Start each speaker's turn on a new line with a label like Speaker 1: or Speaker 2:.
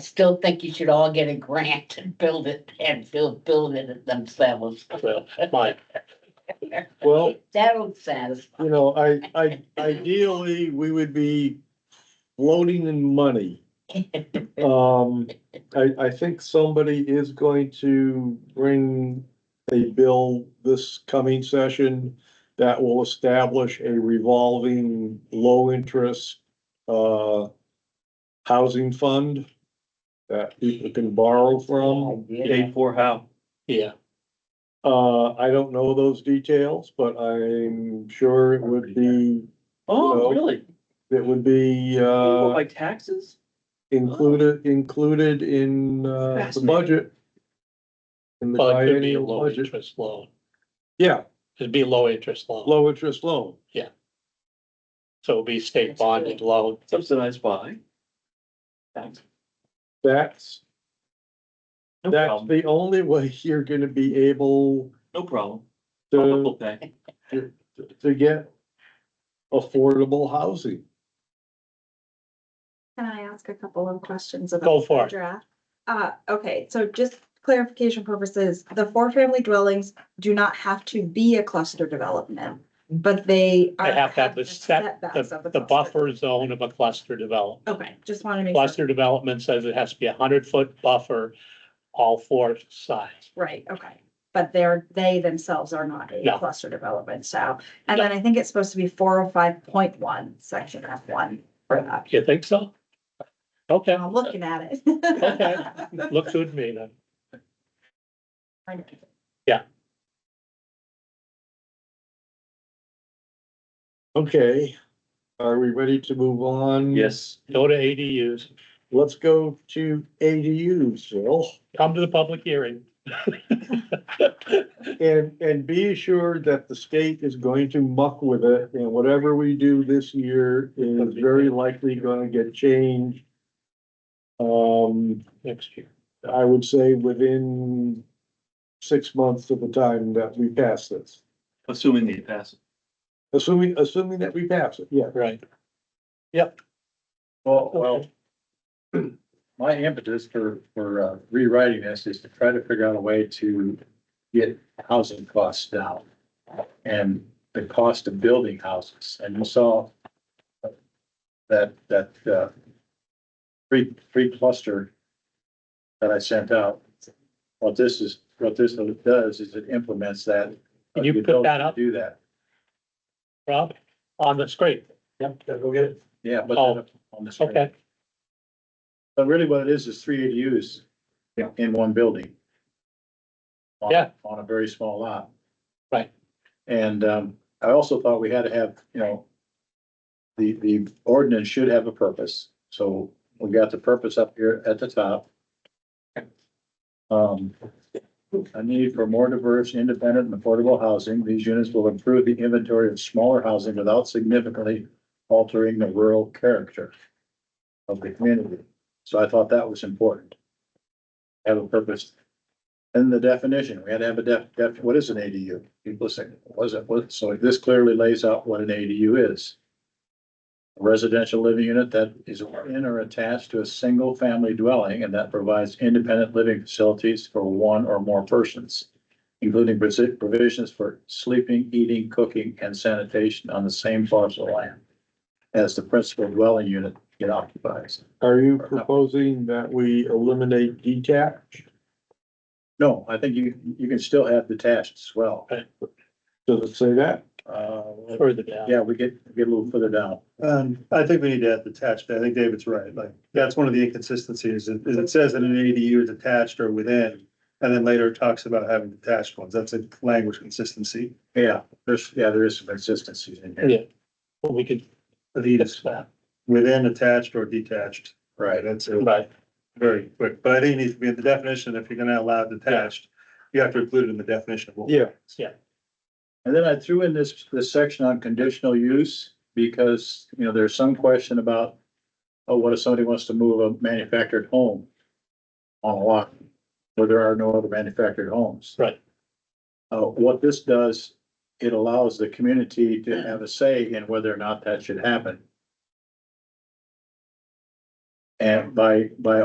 Speaker 1: still think you should all get a grant and build it and build, build it themselves.
Speaker 2: Well, my,
Speaker 3: Well,
Speaker 1: That'll satisfy.
Speaker 3: you know, I, I, ideally, we would be floating in money. Um, I, I think somebody is going to bring a bill this coming session that will establish a revolving, low-interest, uh, housing fund that people can borrow
Speaker 2: Um,
Speaker 3: from.
Speaker 1: Yeah.
Speaker 4: for how?
Speaker 2: yeah,
Speaker 3: Uh, I don't know those details, but I'm sure it would be,
Speaker 4: Oh,
Speaker 3: No.
Speaker 4: really?
Speaker 3: it would be,
Speaker 4: Oh,
Speaker 3: uh,
Speaker 4: Like taxes? Oh.
Speaker 3: included, included in, uh, the
Speaker 4: Fascinating.
Speaker 3: budget. In the
Speaker 2: well, it could be a
Speaker 3: biennial
Speaker 2: low
Speaker 3: budget,
Speaker 2: interest loan,
Speaker 3: yeah,
Speaker 2: it'd be a low interest loan,
Speaker 3: low interest loan,
Speaker 2: so it'd be state
Speaker 1: That's good.
Speaker 2: bonded loan.
Speaker 4: Subsidized by? Tax.
Speaker 3: that's,
Speaker 4: No
Speaker 3: that's
Speaker 4: problem,
Speaker 3: the only way you're gonna be able
Speaker 4: no problem.
Speaker 3: to,
Speaker 4: Double pay.
Speaker 3: to get affordable housing.
Speaker 5: Can I ask a couple of questions about?
Speaker 2: Go for
Speaker 5: the
Speaker 2: it,
Speaker 5: Draft. Uh, okay, so just clarification purposes, the four-family dwellings do not have to be a cluster development, but they.
Speaker 2: I
Speaker 5: are-
Speaker 2: Hmm. have to have the set,
Speaker 5: setbacks of
Speaker 2: the, the
Speaker 5: cluster.
Speaker 2: buffer zone of a cluster development.
Speaker 5: Okay, just wanted to make sure.
Speaker 2: Cluster development says it has to be a hundred foot buffer, all four sides.
Speaker 5: Right, okay. But they're, they themselves are not a
Speaker 2: No.
Speaker 5: cluster development, so. And then I think it's supposed to be four oh five point one, section F one for that.
Speaker 2: You think so? Okay,
Speaker 5: I'm looking at it.
Speaker 2: Okay. looks good to me then.
Speaker 3: Okay, are we ready to move on?
Speaker 4: Yes.
Speaker 2: Go to ADUs,
Speaker 3: Let's go to ADUs, Phil.
Speaker 2: come to the public hearing.
Speaker 3: And, and be assured that the state is going to muck with it, and whatever we do this year is very likely gonna get changed. Um,
Speaker 2: Next year.
Speaker 3: I would say within six months of the time that we pass this,
Speaker 4: Assuming they pass.
Speaker 3: assuming, assuming that we pass it, yeah.
Speaker 2: Right.
Speaker 6: Well, well,
Speaker 2: Okay.
Speaker 6: my impetus for, for uh, rewriting this is to try to figure out a way to get housing costs down. And the cost of building houses, and you saw that, that, uh, free, free cluster that I sent out. What this is, what this does is it implements that.
Speaker 2: Can you put that up?
Speaker 6: Do that,
Speaker 2: Rob, on the screen.
Speaker 6: Yep, gotta go get it. yeah, but.
Speaker 2: Oh,
Speaker 6: on the screen.
Speaker 2: Okay,
Speaker 6: But really what it is, is three ADUs.
Speaker 3: Yeah.
Speaker 6: In one building. On-
Speaker 2: Yeah.
Speaker 6: On a very small lot.
Speaker 2: Right.
Speaker 6: And, um, I also thought we had to have, you know, the, the ordinance should have a purpose, so we got the purpose up here at the top. Um, a need for more diverse, independent and affordable housing. These units will improve the inventory of smaller housing without significantly altering the rural character of the community. So I thought that was important. Have a purpose. And the definition, we had to have a def, def, what is an ADU? People say, what is it, what, so this clearly lays out what an ADU is. A Residential living unit that is in or attached to a single family dwelling and that provides independent living facilities for one or more persons. Including provi- provisions for sleeping, eating, cooking and sanitation on the same parcel of land. As the principal dwelling unit it occupies.
Speaker 3: Are you proposing that we eliminate detached?
Speaker 6: No, I think you, you can still have detached as well.
Speaker 3: Does it say that?
Speaker 6: Uh,
Speaker 2: further down.
Speaker 6: yeah, we get, get a little further down.
Speaker 7: Um, I think we need to add detached, I think David's right, like, that's one of the inconsistencies, is is it says that an ADU is attached or within. And then later it talks about having detached ones, that's a language consistency.
Speaker 6: Yeah, there's, yeah, there is some consistencies in here.
Speaker 2: Yeah. Well, we could
Speaker 7: These,
Speaker 2: fix that,
Speaker 7: within attached or detached,
Speaker 6: Right.
Speaker 7: that's a
Speaker 2: right?
Speaker 7: very quick, but I think it needs to be in the definition, if you're gonna allow detached. You have to include it in the definition of what.
Speaker 3: Yeah.
Speaker 6: And then I threw in this, this section on conditional use because, you know, there's some question about, oh, what if somebody wants to move a manufactured home on a lot where there are no other manufactured homes?
Speaker 2: Right.
Speaker 6: Uh, what this does, it allows the community to have a say in whether or not that should happen. And by, by